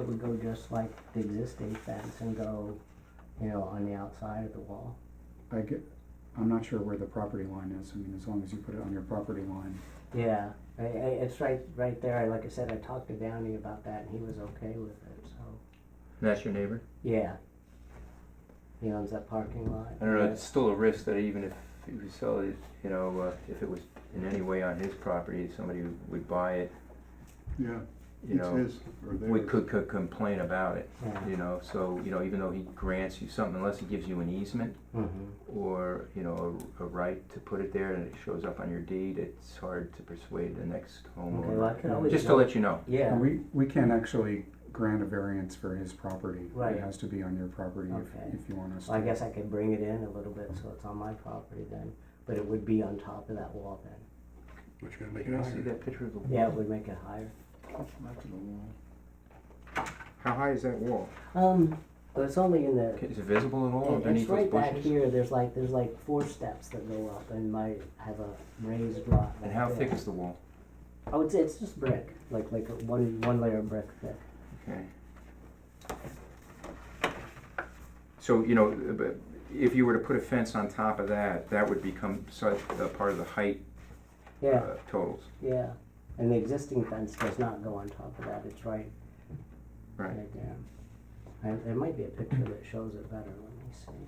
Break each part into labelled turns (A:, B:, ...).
A: It would go just like the existing fence and go, you know, on the outside of the wall.
B: I get, I'm not sure where the property line is, I mean, as long as you put it on your property line.
A: Yeah, I, I, it's right, right there. Like I said, I talked to Downey about that and he was okay with it, so,
C: That's your neighbor?
A: yeah. He owns that parking lot.
C: I don't know, it's still a risk that even if he was sell it, you know, uh, if it was in any way on his property, somebody would buy it,
D: Yeah,
C: you
D: it's
C: know.
D: his or theirs.
C: We could, could complain about it,
A: Yeah,
C: you know, so, you know, even though he grants you something, unless he gives you an easement
A: mhm,
C: or, you know, a, a right to put it there and it shows up on your deed, it's hard to persuade the next
A: okay, well, I
C: homeowner.
A: could always.
C: Just to
A: go-
C: let you know,
A: Yeah,
B: We, we can't actually grant a variance for his property.
A: Right.
B: It has to be on your property
A: Okay.
B: if, if you want us to.
A: well, I guess I could bring it in a little bit so it's on my property then, but it would be on top of that wall then.
D: Which gonna make it
C: can I see
D: higher.
C: that picture of the wall?
A: Yeah, it would make it higher.
B: How high is that wall?
A: Um, but it's only in the,
C: Okay, Is it visible at all
A: it- it's
C: underneath those
A: right back
C: bushes?
A: here, there's like, there's like four steps that go up and might have a raised rock.
C: And how
A: like
C: thick
A: this.
C: is the wall?
A: Oh, it's, it's just brick, like, like a one, one layer of brick thick.
C: Okay. So, you know, but if you were to put a fence on top of that, that would become such a part of the height
A: Yeah,
C: uh, totals,
A: yeah, and the existing fence does not go on top of that, it's right,
C: right?
A: right there. And there might be a picture that shows it better, let me see.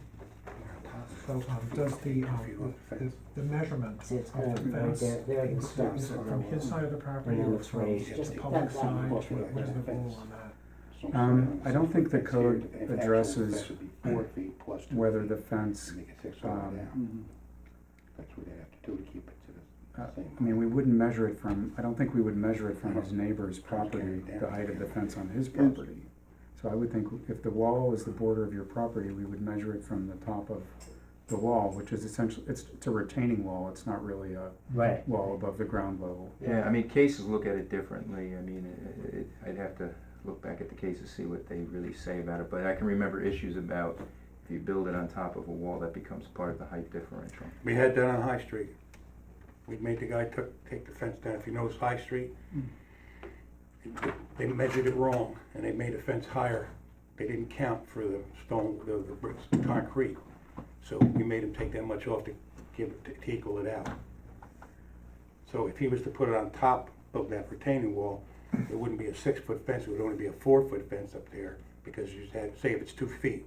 E: So, um, does the, um, the, the measurement
A: See, it's
E: of
A: kind
E: the
A: of right
E: fence,
A: there, there it
E: is
A: stops.
E: it from his side of the property
A: And it
E: or
A: looks
E: from
A: raised, just
E: the
A: that
E: public
A: wide.
E: side? What is the rule on that?
B: Um, I don't think the code
F: If actually
B: addresses
F: that should be Four feet plus two.
B: Whether
F: feet,
B: the fence,
F: Make it six foot
B: um,
F: down.
D: Mm-hmm.
F: That's what they have to do to keep it to
B: Uh,
F: the same.
B: I mean, we wouldn't measure it from, I don't think we would measure it from his neighbor's property, the height of the fence on his property. So I would think if the wall is the border of your property, we would measure it from the top of the wall, which is essentially, it's, it's a retaining wall, it's not really a
A: Right.
B: wall above the ground level.
C: Yeah, I mean, cases look at it differently, I mean, it- it- I'd have to look back at the cases, see what they really say about it, but I can remember issues about if you build it on top of a wall, that becomes part of the height differential.
D: We had that on High Street. We made the guy took, take the fence down, if you notice High Street, they measured it wrong, and they made the fence higher. They didn't count for the stone, the, the bricks, the concrete, so we made him take that much off to give, it- to equal it out. So if he was to put it on top of that retaining wall, it wouldn't be a six-foot fence, it would only be a four-foot fence up there, because you had, say if it's two feet,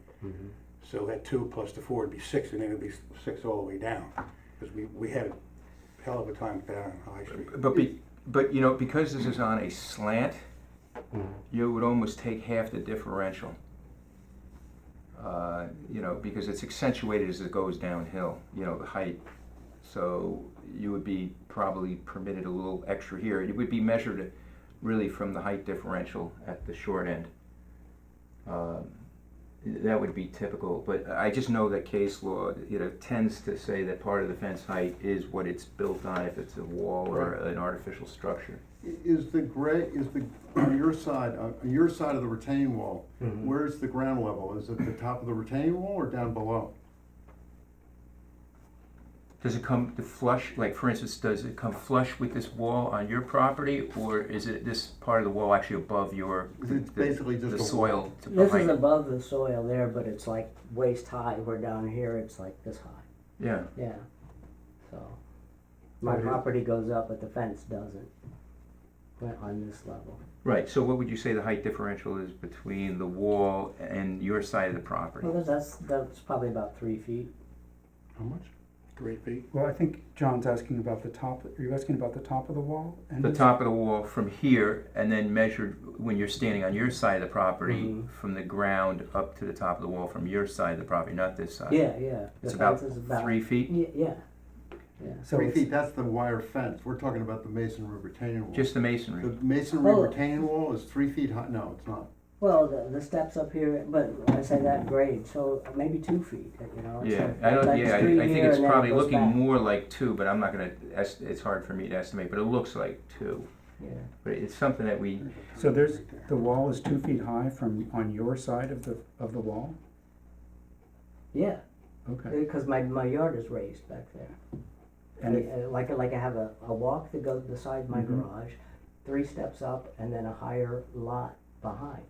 D: So that two plus the four would be six, and then it'd be s- six all the way down, because we, we had a hell of a time down on High Street.
C: But be, but you know, because this is on a slant,
A: Mhm.
C: you would almost take half the differential. Uh, you know, because it's accentuated as it goes downhill, you know, the height. So you would be probably permitted a little extra here. It would be measured really from the height differential at the short end. Um, that would be typical, but I just know that case law, you know, tends to say that part of the fence height is what it's built on, if it's a wall or an artificial structure.
F: Is the gray, is the, on your side, on your side of the retaining wall,
A: Mhm.
F: where's the ground level? Is it the top of the retaining wall or down below?
C: Does it come to flush, like for instance, does it come flush with this wall on your property, or is it this part of the wall actually above your?
F: It's basically just
C: The
F: a wall.
C: soil to
A: This is
C: behind,
A: above the soil there, but it's like waist high, where down here it's like this high.
C: yeah,
A: Yeah, so, my property goes up, but the fence doesn't, But on this level.
C: right, so what would you say the height differential is between the wall and your side of the property?
A: Well, that's- that's, that's probably about three feet.
D: How much? Three feet?
B: Well, I think John's asking about the top, are you asking about the top of the wall? and
C: The
B: his-
C: top of the wall from here, and then measured when you're standing on your side of the property,
A: Mhm.
C: from the ground up to the top of the wall from your side of the property, not this side?
A: Yeah, yeah. The
C: Uh, It's about
A: fence is
C: three feet?
A: Ye- Yeah, yeah.
B: So
F: Three
B: it's-
F: feet, that's the wire fence. We're talking about the masonry retaining wall.
C: Just the masonry?
F: The masonry
A: Oh.
F: retaining wall is three feet high, no, it's not.
A: Well, the, the steps up here, but I say that grade, so maybe two feet, you know? it's
C: Yeah,
A: like-
C: I don't,
A: like
C: yeah, I,
A: three
C: I think
A: here
C: it's
A: and then it
C: probably
A: goes
C: looking
A: back.
C: more like two, but I'm not gonna, es- it's hard for me to estimate, but it looks like two.
A: Yeah,
C: But it's something that we,
B: So there's, the wall is two feet high from, on your side of the, of the wall?
A: yeah,
B: Okay.
A: because my, my yard is raised back there. And
B: And it-
A: uh, like, like I have a, a walk that goes beside my
B: Mhm.
A: garage, three steps up, and then a higher lot behind.